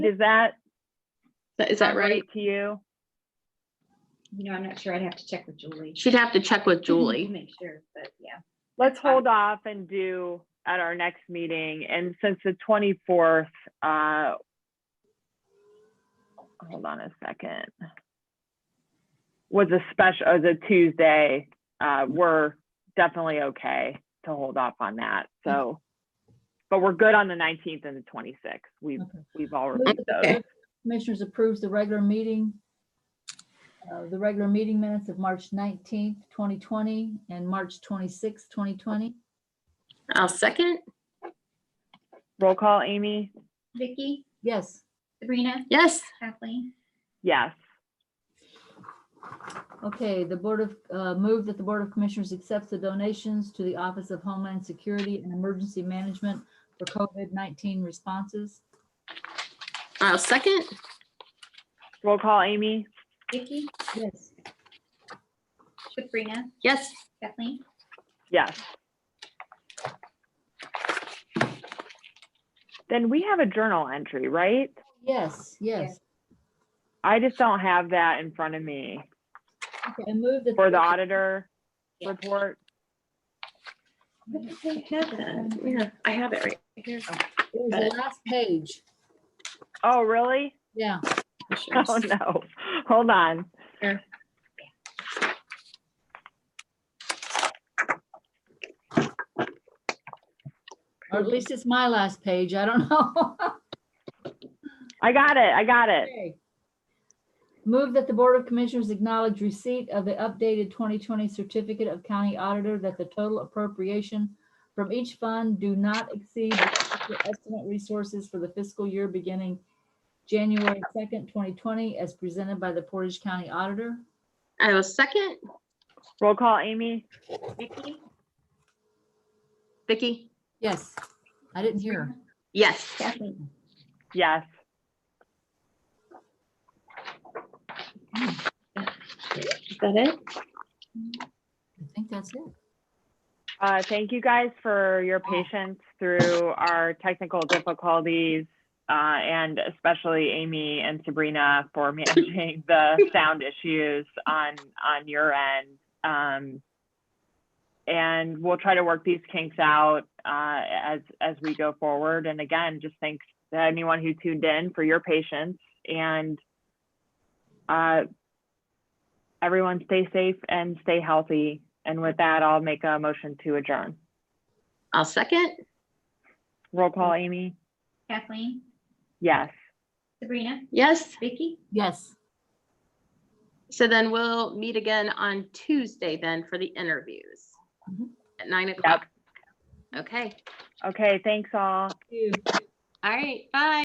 Is that Is that right? To you? You know, I'm not sure. I'd have to check with Julie. Mm-hmm. She'd have to check with Julie. Make sure, but yeah. Let's hold off and do at our next meeting. And since the 24th, uh, hold on a second. Was a special, was a Tuesday, uh, we're definitely okay to hold off on that. So, but we're good on the 19th and the 26th. We've, Okay. we've all Move reviewed those. that the Commissioners approves the regular meeting, uh, the regular meeting minutes of March 19th, 2020, and March 26th, 2020. I'll second. Roll call, Amy? Vicky, Yes, Sabrina, Yes. Kathleen, Yes. okay, the Board of, uh, move that the Board of Commissioners accepts the donations to the Office of Homeland Security and Emergency Management for COVID-19 responses. I'll second. Roll call, Amy? Vicky, Yes, Sabrina, Yes. Kathleen. Yes. Then we have a journal entry, right? yes, yes. I just don't have that in front of me Okay, I move that. for the auditor Yeah. report. Yeah, I have it right here. It was the last page, Oh, really? yeah. Oh, no. Hold on. Here. Or at least it's my last page, I don't know. I got it. I got it. Okay. Move that the Board of Commissioners acknowledge receipt of the updated 2020 Certificate of County Auditor that the total appropriation from each fund do not exceed the estimate resources for the fiscal year beginning January 2nd, 2020, as presented by the Portage County Auditor. I will second. Roll call, Amy? Vicky, Vicky? Yes, I didn't hear. Yes. Kathleen. Yes. Is that it? I think that's it. Uh, thank you guys for your patience through our technical difficulties, uh, and especially Amy and Sabrina for managing the sound issues on, on your end. Um, and we'll try to work these kinks out, uh, as, as we go forward. And again, just thanks to anyone who tuned in for your patience and, uh, everyone stay safe and stay healthy. And with that, I'll make a motion to adjourn. I'll second. Roll call, Amy? Kathleen, Yes. Sabrina, Yes. Vicky, Yes, So then we'll meet again on Tuesday then for the interviews Mhm. at nine o'clock. Okay. Okay, thanks all. you. All right. Bye.